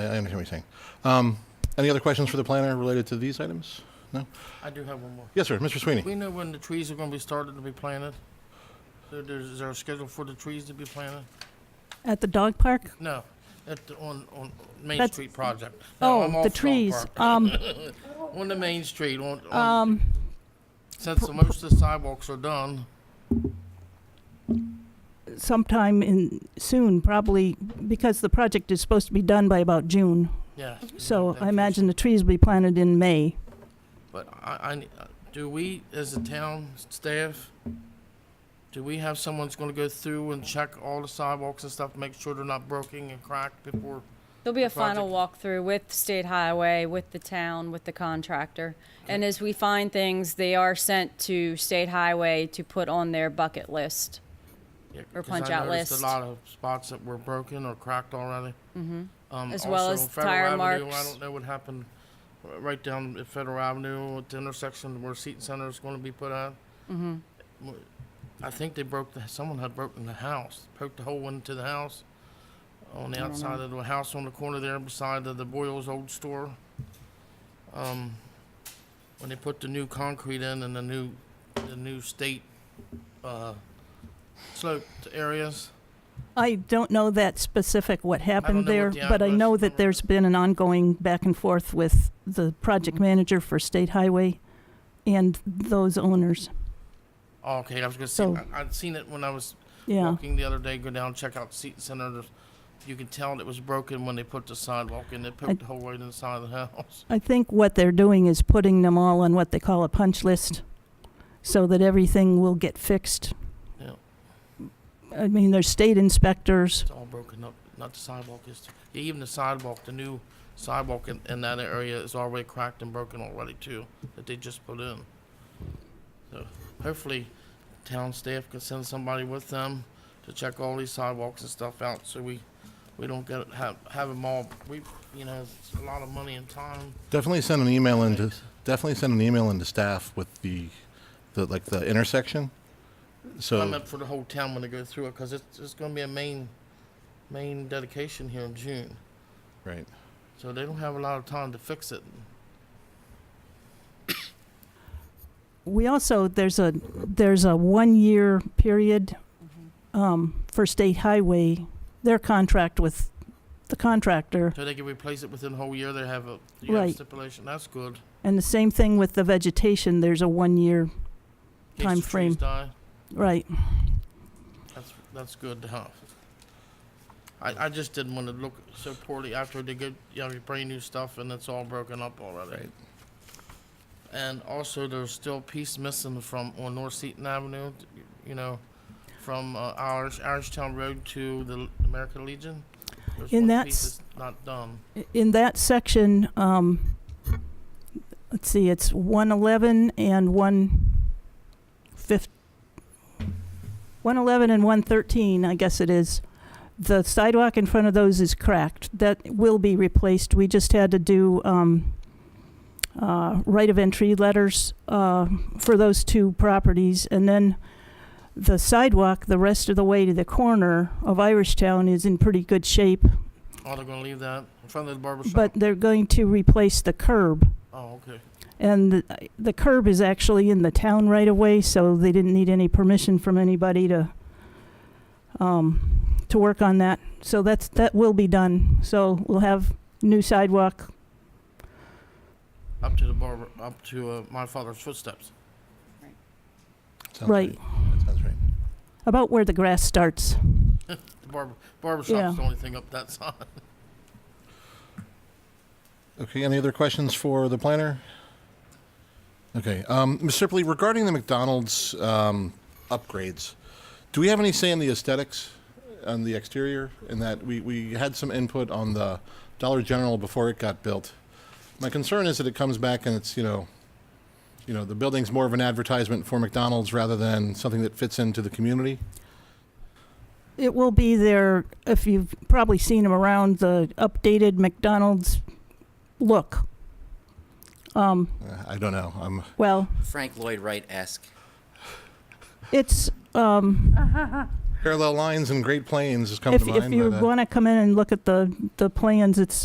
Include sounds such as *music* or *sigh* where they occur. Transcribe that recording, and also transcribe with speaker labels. Speaker 1: I I understand what you're saying. Um, Any other questions for the planner related to these items? No?
Speaker 2: I do have one more.
Speaker 1: Yes, sir, Mr. Sweeney.
Speaker 2: We know when the trees are gonna be started to be planted. There, there's, is there a schedule for the trees to be planted?
Speaker 3: At the dog park?
Speaker 2: No, at, the- on, on Main
Speaker 3: That's-
Speaker 2: Street project. No, I'm
Speaker 3: Oh,
Speaker 2: off
Speaker 3: the
Speaker 2: Dog
Speaker 3: trees.
Speaker 2: Park.
Speaker 3: Um,
Speaker 2: On the Main Street, on, on,
Speaker 3: um,
Speaker 2: since the most of the sidewalks are done,
Speaker 3: sometime in, soon, probably, because the project is supposed to be done by about June.
Speaker 2: yeah.
Speaker 3: So
Speaker 2: that
Speaker 3: I
Speaker 2: trees-
Speaker 3: imagine the trees will be planted in May.
Speaker 2: But I, I ne- do we, as a town staff, do we have someone that's gonna go through and check all the sidewalks and stuff, make sure they're not broken and cracked before?
Speaker 4: There'll be a
Speaker 2: project.
Speaker 4: final walkthrough with State Highway, with the town, with the contractor. And as we find things, they are sent to State Highway to put on their bucket list.
Speaker 2: Yeah,
Speaker 4: Or
Speaker 2: 'cause
Speaker 4: punch
Speaker 2: I
Speaker 4: out
Speaker 2: noticed
Speaker 4: list.
Speaker 2: A lot of spots that were broken or cracked already. Mm-hmm.
Speaker 4: As well as tire
Speaker 2: I
Speaker 4: marks.
Speaker 2: don't know what happened, uh, right down at Federal Avenue, at the intersection where Seton Center is gonna be put out. Mm-hmm. I think they broke, the someone had broken the house, poked a hole into the house, on the outside of the house on the corner there beside the the Boyle's old store. Um, when they put the new concrete in and the new, the new state, uh, sloped areas.
Speaker 3: I don't know that specific what happened
Speaker 2: know
Speaker 3: there,
Speaker 2: what the
Speaker 3: but I
Speaker 2: outburst
Speaker 3: know
Speaker 2: number
Speaker 3: that there's been an ongoing back and forth with the project
Speaker 2: Mm-hmm.
Speaker 3: manager for State Highway and those owners.
Speaker 2: Oh, okay, I was gonna say,
Speaker 3: So-
Speaker 2: I, I'd seen it when I was
Speaker 3: Yeah,
Speaker 2: walking the other day, go down, check out Seton Center. there's- You can tell it was broken when they put the sidewalk in, they poked the whole way to the side of the house. *laughs*
Speaker 3: I think what they're doing is putting them all on what they call a punch list, so that everything will get fixed.
Speaker 2: Yeah,
Speaker 3: I mean, there's state inspectors.
Speaker 2: it's all broken up, not the sidewalk, is. yeah, even the sidewalk, the new sidewalk in, in that area is already cracked and broken already too, that they just put in. So hopefully, town staff can send somebody with them to check all these sidewalks and stuff out, so we, we don't get, have, have them all, we, you know, it's a lot of money and time.
Speaker 1: Definitely send an email into, definitely send an email into staff with the, the, like, the intersection.
Speaker 2: I
Speaker 1: So,
Speaker 2: meant for the whole town when they go through it, because it's, it's gonna be a main, main dedication here in June.
Speaker 1: right.
Speaker 2: So they don't have a lot of time to fix it.
Speaker 3: We also, there's a, there's a one-year period um, for State Highway, their contract with the contractor,
Speaker 2: So they can replace it within a whole year, they have a, you have
Speaker 3: Right.
Speaker 2: stipulation, that's good.
Speaker 3: and the same thing with the vegetation, there's a one-year,
Speaker 2: In case the
Speaker 3: Timeframe.
Speaker 2: trees die,
Speaker 3: right.
Speaker 2: that's, that's good to have. I, I just didn't wanna look so poorly after they get, you know, your brand new stuff and it's all broken up already.
Speaker 1: Right.
Speaker 2: And also, there's still a piece missing from, on North Seton Avenue, you know, from uh, Irish, Irishtown Road to the American Legion. There's
Speaker 3: And
Speaker 2: one piece
Speaker 3: that's-
Speaker 2: that's Not done.
Speaker 3: In that section, um, let's see, it's one eleven and one fif- one eleven and one thirteen, I guess it is. The sidewalk in front of those is cracked. That will be replaced. We just had to do, um, uh, right of entry letters, uh, for those two properties. And then the sidewalk, the rest of the way to the corner of Irish Town is in pretty good shape.
Speaker 2: Oh, they're gonna leave that in front of the barber shop?
Speaker 3: But they're going to replace the curb.
Speaker 2: Oh, okay.
Speaker 3: And the- the curb is actually in the town right away, so they didn't need any permission from anybody to, um, to work on that. So that's, that will be done. So we'll have new sidewalk.
Speaker 2: Up to the barber, up to uh, my father's footsteps.
Speaker 1: Sounds
Speaker 3: Right.
Speaker 1: That sounds right.
Speaker 3: About where the grass starts.
Speaker 2: The barber, barber
Speaker 3: Yeah.
Speaker 2: shop's the only thing up that side.
Speaker 1: Okay, any other questions for the planner? Okay, um, Ms. Sipley, regarding the McDonald's, um, upgrades, do we have any say in the aesthetics on the exterior? In that, we, we had some input on the Dollar General before it got built. My concern is that it comes back and it's, you know, you know, the building's more of an advertisement for McDonald's rather than something that fits into the community.
Speaker 3: It will be there, if you've probably seen them around, the updated McDonald's look. Um,
Speaker 1: Uh, I don't know, I'm,
Speaker 3: well,
Speaker 5: Frank Lloyd Wright-esque.
Speaker 3: it's, um,
Speaker 1: parallel lines and Great Plains has come to
Speaker 3: if,
Speaker 1: mind.
Speaker 3: if you
Speaker 1: but, uh,
Speaker 3: want to come in and look at the, the plans, it's